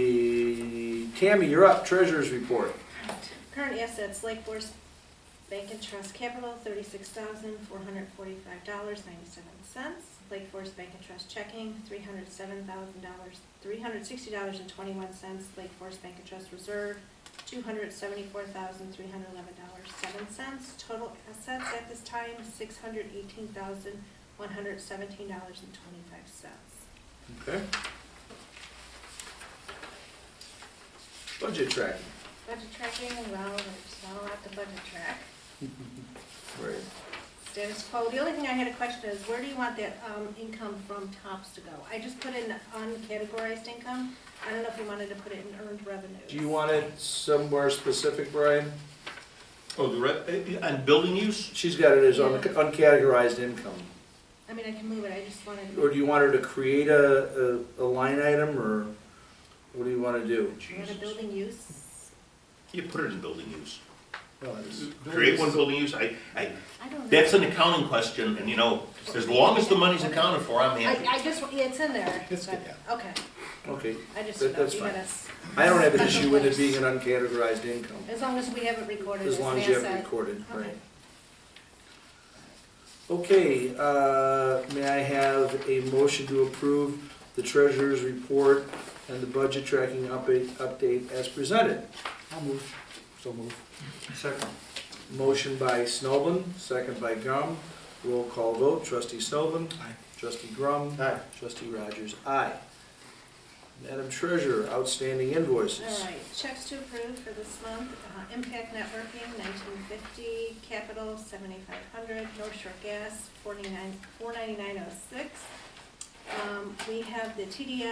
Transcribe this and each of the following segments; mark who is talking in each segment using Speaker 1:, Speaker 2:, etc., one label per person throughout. Speaker 1: Okay, Tammy, you're up, treasurer's report.
Speaker 2: Current assets, Lake Forest Bank and Trust Capital, thirty-six thousand, four hundred forty-five dollars, ninety-seven cents. Lake Forest Bank and Trust checking, three hundred seven thousand dollars, three hundred sixty dollars and twenty-one cents. Lake Forest Bank and Trust Reserve, two hundred seventy-four thousand, three hundred eleven dollars, seven cents. Total assets at this time, six hundred eighteen thousand, one hundred seventeen dollars and twenty-five cents.
Speaker 1: Okay. Budget tracking.
Speaker 2: Budget tracking, well, there's not a lot to budget track.
Speaker 1: Right.
Speaker 2: status quo. The only thing I had a question is, where do you want that um, income from TOPS to go? I just put in uncategorized income. I don't know if you wanted to put it in earned revenue.
Speaker 1: Do you want it somewhere specific, Brian?
Speaker 3: Oh, the re, eh, on building use?
Speaker 1: She's got it as un- uncategorized income.
Speaker 2: I mean, I can move it, I just wanted,
Speaker 1: Or do you want her to create a, a, a line item, or what do you want to do?
Speaker 2: we have a building use.
Speaker 3: You put it in building use.
Speaker 1: Well, it's-
Speaker 3: Create one building use, I, I,
Speaker 2: I don't know.
Speaker 3: that's an accounting question, and you know, as long as the money's accounted for, I'm
Speaker 2: I,
Speaker 3: happy.
Speaker 2: I just, yeah, it's in there.
Speaker 4: It's good,
Speaker 2: but- Okay,
Speaker 1: Okay,
Speaker 2: I just,
Speaker 1: That- that's
Speaker 2: you
Speaker 1: fine.
Speaker 2: got us,
Speaker 1: I don't have an issue with it being an uncategorized income,
Speaker 2: as long as we have it recorded as
Speaker 1: as
Speaker 2: an
Speaker 1: long as you have it
Speaker 2: asset.
Speaker 1: recorded,
Speaker 2: Okay.
Speaker 1: right? Okay, uh, may I have a motion to approve the treasurer's report and the budget tracking update, update as presented?
Speaker 4: I'll move. So move.
Speaker 1: Second. Motion by Snoblin, second by Grum. Roll call vote, trustee Snoblin.
Speaker 4: Aye.
Speaker 1: Trustee Grum.
Speaker 4: Aye.
Speaker 1: Trustee Rogers, aye. Madam Treasurer, outstanding invoices.
Speaker 2: All right, checks to approve for this month, uh, Impact Networking, nineteen fifty, Capital, seventy-five hundred, North Shore Gas, forty-nine, four ninety-nine oh six. Um, we have the TDS,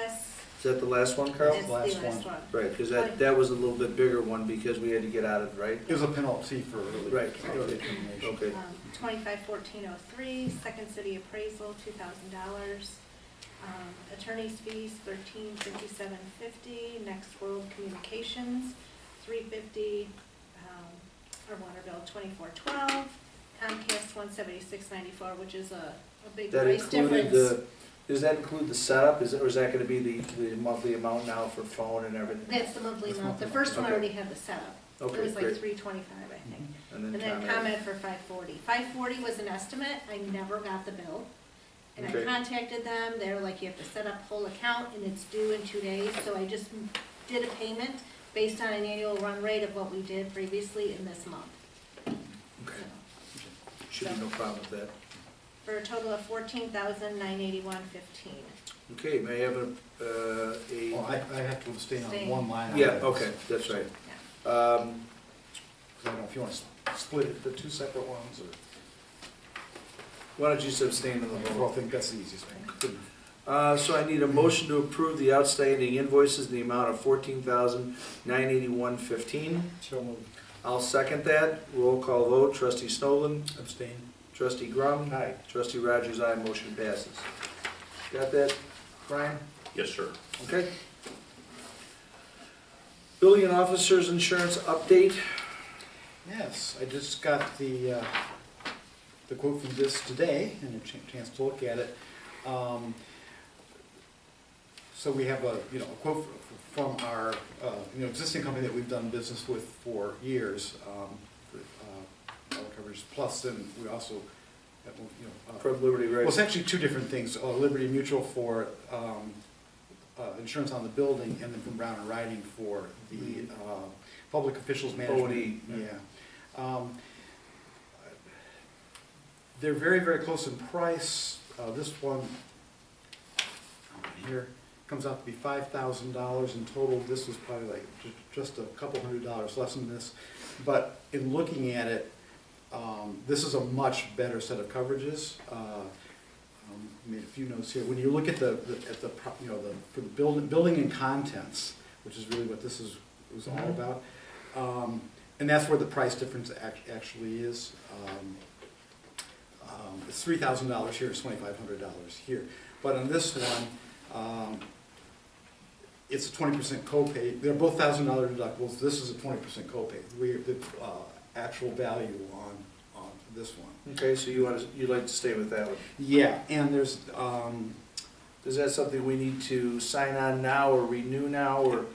Speaker 1: Is that the last one, Carl?
Speaker 2: that's the
Speaker 4: last
Speaker 2: last one.
Speaker 1: Right, because that, that was a little bit bigger one because we had to get out of, right?
Speaker 4: It was a penalty for early.
Speaker 1: Right.
Speaker 4: early termination.
Speaker 1: Okay.
Speaker 2: Um, twenty-five fourteen oh three, Second City Appraisal, two thousand dollars. Um, attorney's fees, thirteen fifty-seven fifty, Next World Communications, three fifty, um, our water bill, twenty-four twelve, Comcast, one seventy-six ninety-four, which is a, a big
Speaker 1: That
Speaker 2: price
Speaker 1: included
Speaker 2: difference.
Speaker 1: the, does that include the setup? Is, or is that gonna be the, the monthly amount now for phone and everything?
Speaker 2: That's the monthly
Speaker 4: That's
Speaker 2: amount, the
Speaker 4: monthly.
Speaker 2: first one
Speaker 1: Okay.
Speaker 2: already had the setup, it
Speaker 1: Okay,
Speaker 2: was like
Speaker 1: great.
Speaker 2: three twenty-five, I think.
Speaker 1: And
Speaker 2: And then comment for five forty. Five forty was an estimate, I never got the bill. And I
Speaker 1: Okay.
Speaker 2: contacted them, they're like, you have to set up whole account and it's due in two days, so I just did a payment based on an annual run rate of what we did previously in this month.
Speaker 1: Okay,
Speaker 2: So,
Speaker 1: Should be no problem with that.
Speaker 2: For a total of fourteen thousand nine eighty-one fifteen.
Speaker 1: Okay, may I have a, uh, a?
Speaker 4: Well, I, I have to abstain on
Speaker 2: Abstain.
Speaker 4: one line. item.
Speaker 1: Yeah, okay, that's right. Um,
Speaker 4: Because I don't know if you want to split it, the two separate ones, or,
Speaker 1: Why don't you abstain on the
Speaker 4: well, I
Speaker 1: whole?
Speaker 4: think that's the easiest thing.
Speaker 1: Uh, so I need a motion to approve the outstanding invoices in the amount of fourteen thousand nine eighty-one fifteen.
Speaker 4: So move.
Speaker 1: I'll second that. Roll call vote, trustee Snowland,
Speaker 4: Abstain.
Speaker 1: trustee Grum,
Speaker 4: Aye.
Speaker 1: trustee Rogers, aye, motion passes. Got that, Brian?
Speaker 3: Yes, sir.
Speaker 1: Okay. Building and officers insurance update.
Speaker 4: Yes, I just got the, uh, the quote from this today and a chan- chance to look at it. Um, So we have a, you know, a quote f- from our, uh, you know, existing company that we've done business with for years, um, for, uh, auto coverage plus, and we also have, you know. uh,
Speaker 1: From Liberty
Speaker 4: well, it's
Speaker 1: Right.
Speaker 4: actually two different things, Uh, Liberty Mutual for um, uh, insurance on the building, and then from Brown and Riding for the uh, public officials management.
Speaker 1: OD.
Speaker 4: Yeah. Um, They're very, very close in price, Uh, this one here comes out to be five thousand dollars in total, this was probably like ju- just a couple hundred dollars less than this. But in looking at it, um, this is a much better set of coverages. Uh, um, I Made a few notes here. When you look at the, the- at the, pro- you know, the, for the building, building and contents, which is really what this is, was all
Speaker 1: Mhm.
Speaker 4: about. um, And that's where the price difference ac- actually is. Um, um, It's three thousand dollars here, it's twenty-five hundred dollars here. But on this one, um, it's a twenty percent copay, they're both thousand dollar deductibles, this is a twenty percent copay. We, the, uh, actual value on, on this one.
Speaker 1: Okay, so you want to, you'd like to stay with that one?
Speaker 4: Yeah, and there's, um,
Speaker 1: Is that something we need to sign on now or renew now or?